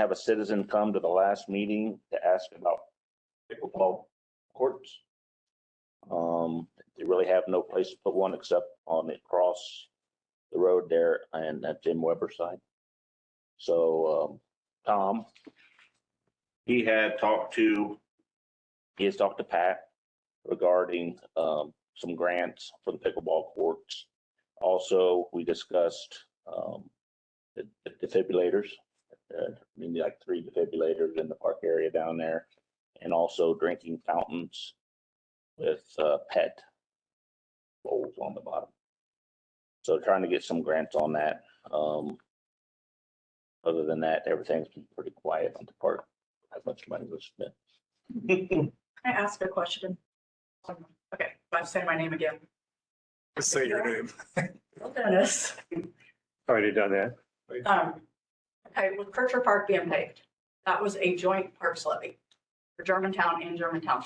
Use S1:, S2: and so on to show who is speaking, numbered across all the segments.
S1: have a citizen come to the last meeting to ask about pickleball courts. Um, they really have no place to put one except on the cross the road there and at Jim Weber's side. So, um, Tom, he had talked to, he has talked to Pat regarding, um, some grants for the pickleball courts. Also, we discussed, um, the the defibrillators, uh, maybe like three defibrillators in the park area down there. And also drinking fountains with, uh, pet bowls on the bottom. So trying to get some grants on that. Um, other than that, everything's been pretty quiet on the park. How much money was spent?
S2: Can I ask a question? Okay, I'm saying my name again.
S3: Say your name.
S2: Dennis.
S3: Already done that.
S2: Um, Okay, with Kircher Park being paved, that was a joint parks levy for Germantown and Germantown.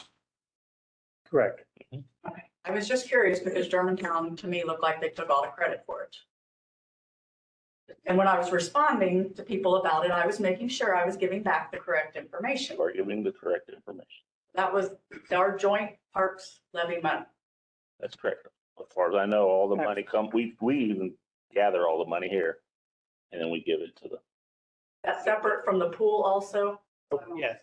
S3: Correct.
S2: Okay, I was just curious because Germantown to me looked like they took all the credit for it. And when I was responding to people about it, I was making sure I was giving back the correct information.
S1: Are giving the correct information?
S2: That was our joint parks levy money.
S1: That's correct. As far as I know, all the money come, we, we even gather all the money here. And then we give it to the,
S2: That's separate from the pool also.
S4: Oh,
S5: Yes.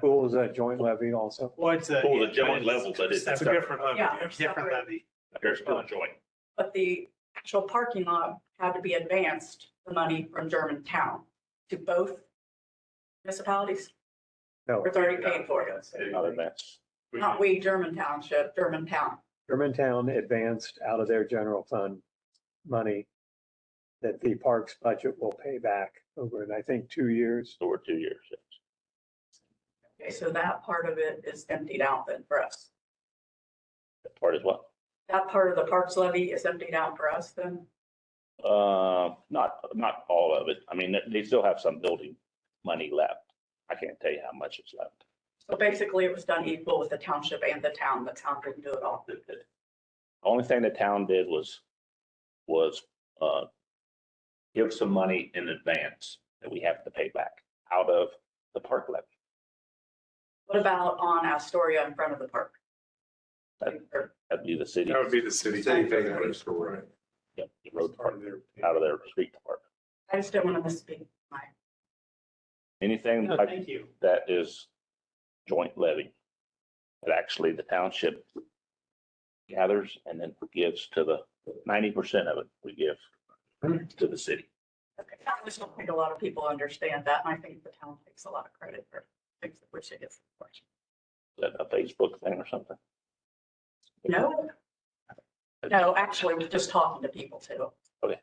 S3: Pool is a joint levy also.
S5: Well, it's a.
S1: Pool is a joint level, but it's
S5: It's a
S1: separate.
S5: different levy.
S2: Yeah,
S5: It's a Different
S2: separate.
S5: levy.
S1: there's still a joint.
S2: But the actual parking lot had to be advanced, the money from Germantown to both municipalities
S3: No,
S2: or already paid for. it.
S1: Other than that,
S2: Not we, German Township, Germantown.
S3: Germantown advanced out of their general fund money that the parks budget will pay back over, and I think, two years.
S1: so we're two years.
S2: Okay, so that part of it is emptied out then for us.
S1: That part as well.
S2: That part of the parks levy is emptied out for us then.
S1: Uh, not, not all of it. I mean, they- they still have some building money left. I can't tell you how much is left.
S2: So basically it was done equal with the township and the town. The town didn't do it all.
S1: The the Only thing the town did was, was, uh, give some money in advance that we have to pay back out of the park levy.
S2: What about on Astoria in front of the park? Or
S1: That'd be the city,
S6: That would be the city.
S2: City
S6: Right.
S2: paying for it.
S6: Right.
S1: yep, the road
S6: Part
S1: department,
S6: of their-
S1: out of their street department.
S2: I just didn't want to misspeak. My-
S1: Anything
S5: No,
S1: like
S5: thank you.
S1: that is joint levy. That actually the township gathers and then gives to the ninety percent of it, we give to the city.
S2: Okay, I just don't think a lot of people understand that, and I think the town takes a lot of credit for things that which it is.
S1: Is that a Facebook thing or something?
S2: No. No, actually, we're just talking to people too.
S1: Okay.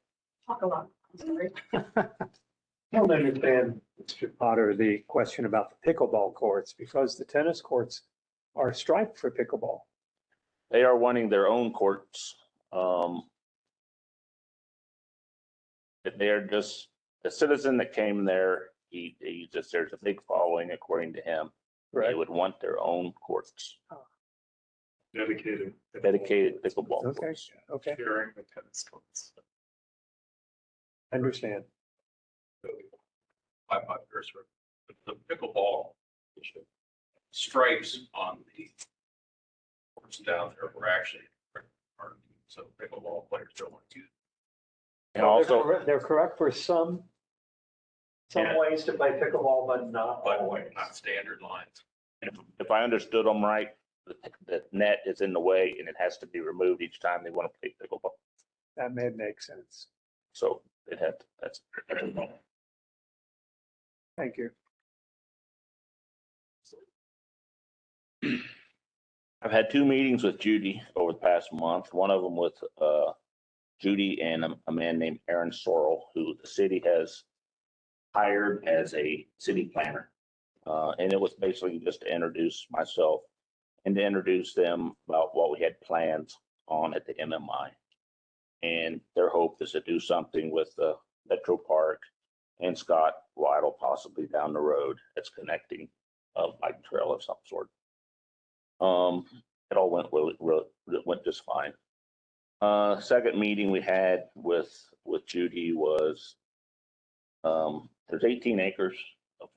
S2: Talk a lot. I'm sorry.
S3: I don't understand, Mr. Potter, the question about the pickleball courts, because the tennis courts are striped for pickleball.
S1: They are wanting their own courts. Um, that they are just, the citizen that came there, he, he just, there's a big following according to him. They would want their own courts,
S6: Dedicated.
S1: dedicated pickleball
S3: Okay,
S1: courts.
S3: okay,
S6: Sharing the tennis courts.
S3: understand.
S4: by my cursor, but the pickleball stripes on the courts down there were actually, are- so pickleball players don't want to use.
S1: And also,
S3: They're correct for some, some
S4: Yeah.
S3: ways to play pickleball, but not
S4: By the
S3: all
S4: way,
S3: ways.
S4: not standard lines.
S1: if if I understood them right, the, the net is in the way and it has to be removed each time they want to play pickleball.
S3: That may make sense.
S1: So it had, that's, that's a problem.
S3: Thank you.
S1: I've had two meetings with Judy over the past month, one of them with uh, Judy and a- a man named Aaron Sorrell, who the city has hired as a city planner. Uh, And it was basically just to introduce myself and to introduce them about what we had plans on at the MMI. And their hope is to do something with the Metro Park and Scott Waddle possibly down the road that's connecting a bike trail of some sort. Um, it all went really, really, it went just fine. Uh, second meeting we had with, with Judy was, um, there's eighteen acres